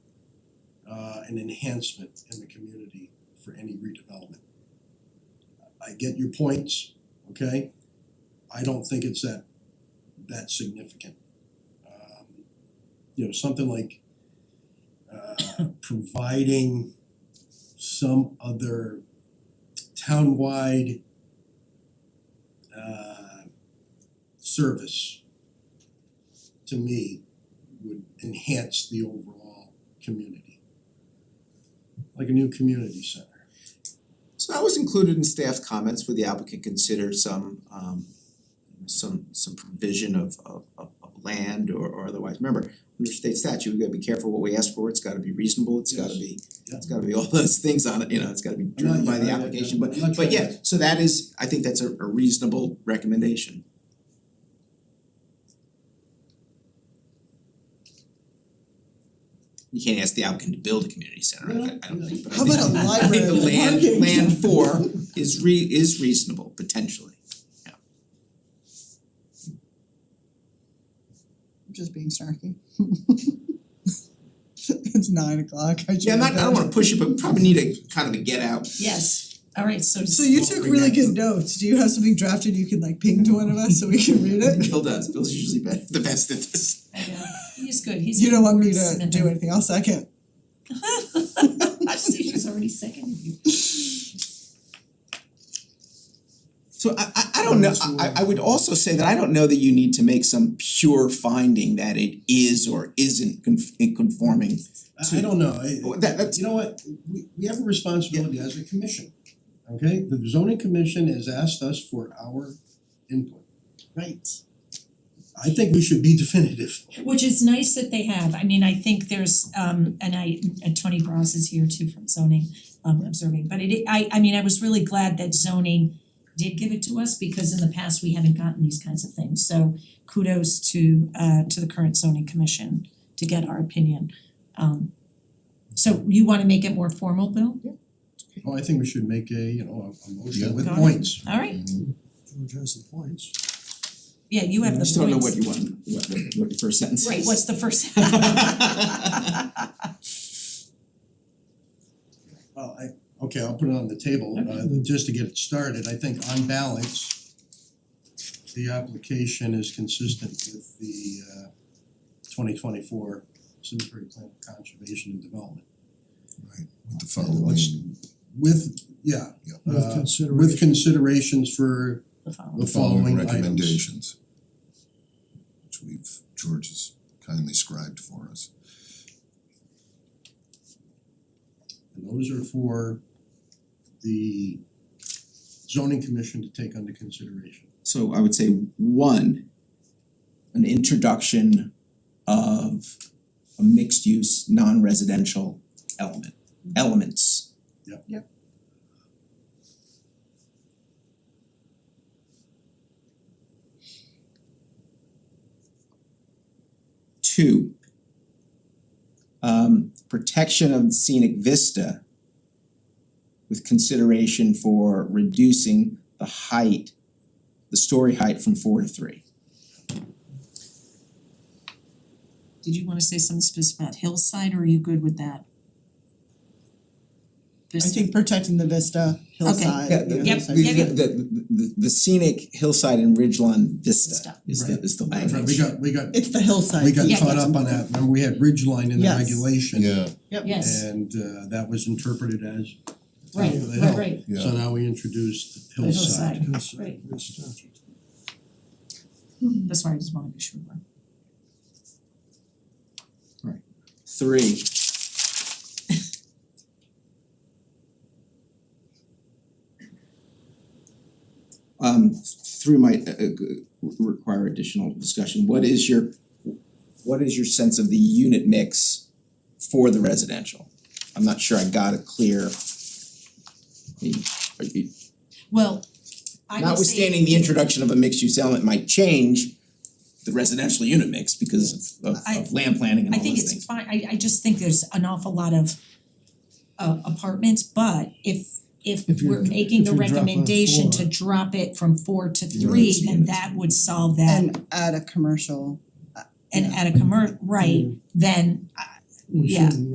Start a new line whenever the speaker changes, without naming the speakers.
uh an enhancement in the community for any redevelopment. I get your points, okay? I don't think it's that that significant. Um you know, something like uh providing some other townwide uh service to me would enhance the overall community. Like a new community center.
So that was included in staff comments where the applicant considered some um some some provision of of of of land or or otherwise. Remember, under state statute, we gotta be careful what we ask for, it's gotta be reasonable, it's gotta be
Yeah.
it's gotta be all those things on it, you know, it's gotta be
I'm not-
driven by the
yeah, I- I-
application, but
I'm not trying
but yeah, so that is, I think that's a a reasonable recommendation. You can't ask the applicant to build a community center, I I don't think, but I
How
think-
about a
I think the
library?
land
Parking.
land for is re is reasonable potentially.
I'm just being snarky. It's nine o'clock, I should.
Yeah, I'm not, I
have
don't
done
wanna push it, but we probably need a kind of a get out.
Yes, alright, so
it. So you
We'll
took
bring
really
that
good notes, do you have something drafted you can like ping to one of us so we can read it?
Bill does, Bill's usually be- the best at this.
I know, he's good, he's.
You don't want me
he's-
to do anything, I'll second.
I see she's already seconded you.
So I I I don't know, I I- I would also say that I don't know that you need to make some pure finding that it is or isn't conf- in conforming.
I I don't know, I-
Well, that- that's-
you know what, we we have a responsibility as a commission, okay? The zoning commission has asked us for our input.
Right.
I think we should be definitive.
Which is nice that they have, I mean, I think there's um and I and Tony Bros is here too from zoning um observing, but it I I mean, I was really glad that zoning did give it to us because in the past we haven't gotten these kinds of things, so kudos to uh to the current zoning commission to get our opinion. Um so you wanna make it more formal, Bill?
Oh, I think we should make a, you know, a a motion with
Got it.
points.
Alright,
Which has the points.
yeah, you have the
I
points.
just don't know what you want, what what what your first sentence is.
Right, what's the first?
Well, I, okay, I'll put it on the table, uh just to get it started, I think on balance, the application is consistent with the uh twenty twenty four Simsbury Plan of Conservation and Development.
Right, with the
Let's-
following,
With, yeah,
yeah,
uh, with considerations for
The following.
the following
following items.
recommendations. Which we've, George has kindly scribed for us.
And those are for the zoning commission to take under consideration.
So I would say one, an introduction of a mixed use, non-residential element, elements.
Yep.
Yep.
Two, um protection of scenic vista with consideration for reducing the height the story height from four to three.
Did you wanna say something specific about hillside or are you good with that?
I think protecting the vista hillside.
Yeah,
you know,
Yep,
so-
The
yeah, yeah.
the the- the the scenic hillside and ridgeline vista
Vista.
is the is the
Right,
language.
We got, we got,
It's the hillside.
we got
piece
caught
that's
up on
important.
that, remember, we had ridgeline in the
Yes.
regulation.
Yeah,
Yes,
And uh that was interpreted as
right,
top of the
right,
hill.
right,
yeah.
So now we introduced
the
hillside.
hillside, right, that's why I just wanted to be sure.
Three. Um three might uh uh, g- require additional discussion. What is your what is your sense of the unit mix for the residential? I'm not sure I got a clear. I mean, are you-
Well, I would say,
Notwithstanding the introduction of a mixed use element might change the residential unit mix because of of
I-
of land planning and
I
all
think
those
it's
things.
fine, I I just think there's an awful lot of uh apartments, but if if
If you-
we're making
if
the
you drop it on
recommendation to
four.
drop it from four to
Yeah,
three,
it's
then
units.
that would solve that
And add a commercial
and at a commer, right, then
We
Yeah.
shouldn't